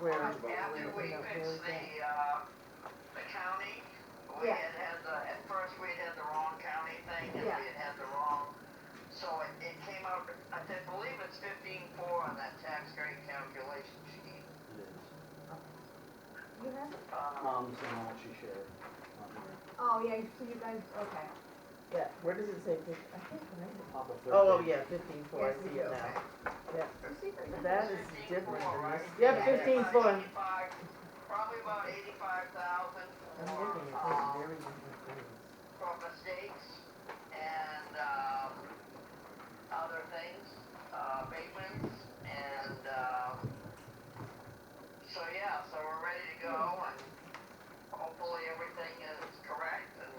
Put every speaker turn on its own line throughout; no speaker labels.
where,
After we fixed the, uh, the county, we
Yeah.
had had the, at first we had had the wrong county thing, and we
Yeah.
had had the wrong, so it, it came out, I think- believe it's fifteen-four on that tax rate calculation sheet.
You have it?
Uh,
Mom's the one she shared. on her
Oh, yeah, so you guys, okay.
yeah, where does it say fifteen, I can't remember.
top of
Oh, oh,
13.
yeah, fifteen four, I
Yes,
see
we
it
do.
now.
You see, there's-
That is different
$15,400,
than this.
right?
Yeah,
about
$15,400.
85 Probably about eighty-five thousand
I'm
for,
looking at
uh,
those very different things.
for mistakes and, um, other things, uh, abatements, and, um, so yeah, so we're ready to go, and hopefully everything is correct, and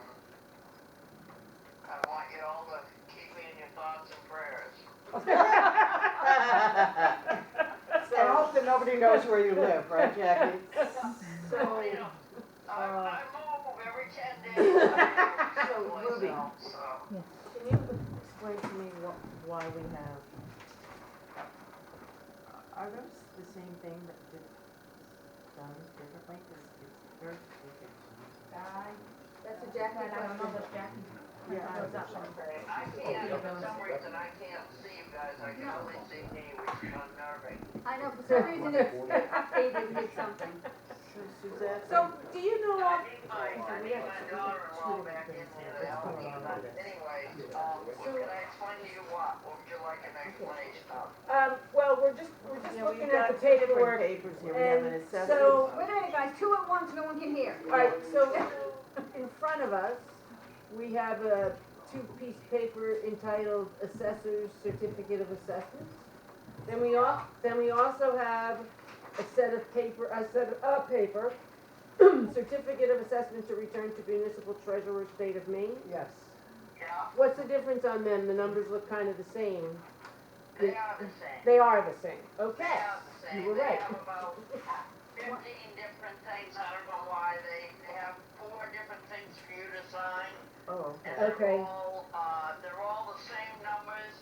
I want you all to keep me in your thoughts and prayers.
I hope that nobody knows where you live, right, Jackie?
So,
You know,
uh,
I, I move every ten days. I
So,
move someplace
Ruby.
else, So.
Can you explain to me what, why we have, uh, are those the same thing that did, done differently? 'Cause it's very different.
I, that's a Jackie
But I don't know
question.
what Jackie
Yeah.
goes up on.
I can't, for some reason, I can't see you guys, I can only see me, which is unnerving.
I know, for some reason it's updated with something.
So Suzette.
So, do you know
I
what,
need my, I need my daughter-in-law back in here to help me, but anyway, um, can I explain to you what, would you like an explanation of?
Um, well, we're just, we're just
Yeah, we've
looking
got
at the
different
paperwork.
Papers here, we have an
and
assessment.
so-
Wait a minute, guys, two at once, no one can hear.
Alright, so in front of us, we have a two-piece paper entitled Assessor's Certificate of Assessment. Then we al, then we also have a set of paper, a set of, a paper, Certificate of Assessment to Return to Municipal Treasurer, State of Maine.
Yes.
Yeah,
What's the difference on them? The numbers look kind of the same.
they are the same.
They are the same,
They
okay.
are the same,
You were
they
right.
have about fifteen different things, I don't know why, they, they have four different things for you to sign.
Oh, okay.
And they're
Okay.
all, uh, they're all the same numbers,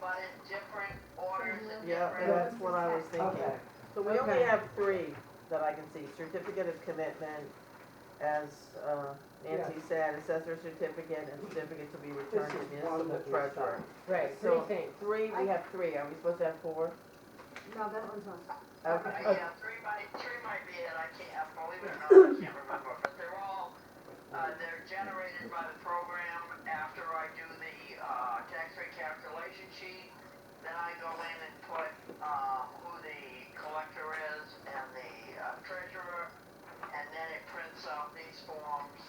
but in different orders and
Yeah,
different.
that's what I was thinking.
Okay.
So we only
Okay.
have three that I can see, certificate of commitment, as uh, Nancy said, assessor certificate, and certificate to be returned to
This is one
municipal
that we
treasurer.
Right,
So-
three things.
Three, we have three, are we supposed to have four?
No, that one's on.
Okay.
Uh, Yeah, three might, three might be it, I can't, I believe it or not, I can't remember, but they're all, uh, they're generated by the program after I do the, uh, tax rate calculation sheet. Then I go in and put, um, who the collector is and the uh, treasurer, and then it prints out these forms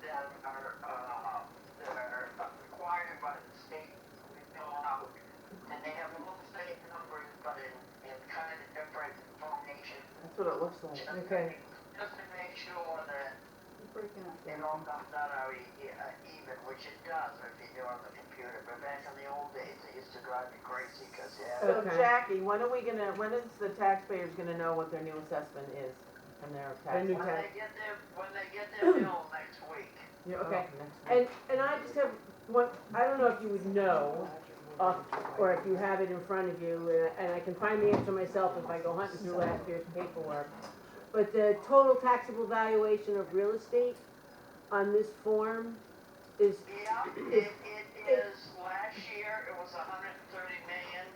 that are, uh, that are required by the state to fill out. And they have a little state numbers, but in, in kind of different formations.
That's what it looks like.
Just to
Okay.
make- Just to make sure that
Breaking up.
it all comes out how e- e- uh, even, which it does if you do it on the computer, but back in the old days, it used to drive me crazy, cause you had.
So
Okay.
Jackie, when are we gonna, when is the taxpayers gonna know what their new assessment is and their
Their
tax?
new
When
tax.
they get their, when they get their bill next week,
Yeah,
Okay.
Oh, next
And,
week.
and I just have one, I don't know if you would know, uh, or if you have it in front of you, uh, and I can find the answer myself if I go hunting through last year's paperwork. But the total taxable valuation of real estate on this form is,
yeah, it, it is, last year, it was a hundred and thirty million.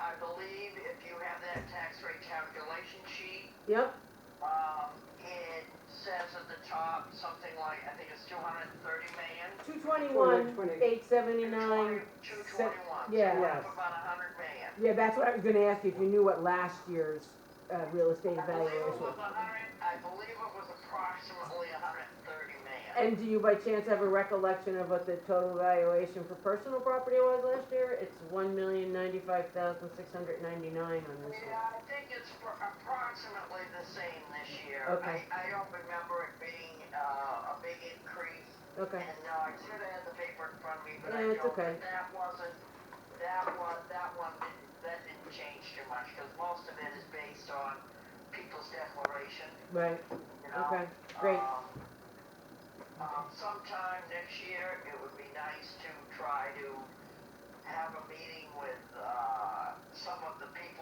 I believe if you have that tax rate calculation sheet,
yep,
um, it says at the top, something like, I think it's two hundred and thirty million.
two twenty-one, eight seventy-nine.
Two twenty-one, so
yeah.
we're up about a hundred million.
Yeah, that's what I was gonna ask you, if you knew what last year's, uh, real estate
I believe it
valuation was.
was a hundred, I believe it was approximately a hundred and thirty million.
And do you by chance have a recollection of what the total valuation for personal property was last year? It's one million ninety-five thousand six hundred ninety-nine on this one.
Yeah, I think it's for approximately the same this year.
Okay.
I, I don't remember it being, uh, a big increase,
Okay,
and, uh, I should have had the paper in front of me, but I
No, it's
don't,
okay.
but that wasn't, that was, that one didn't, that didn't change too much, because most of it is based on people's declaration,
right,
you know?
okay, great.
Um, Um, sometime next year, it would be nice to try to have a meeting with, uh, some of the people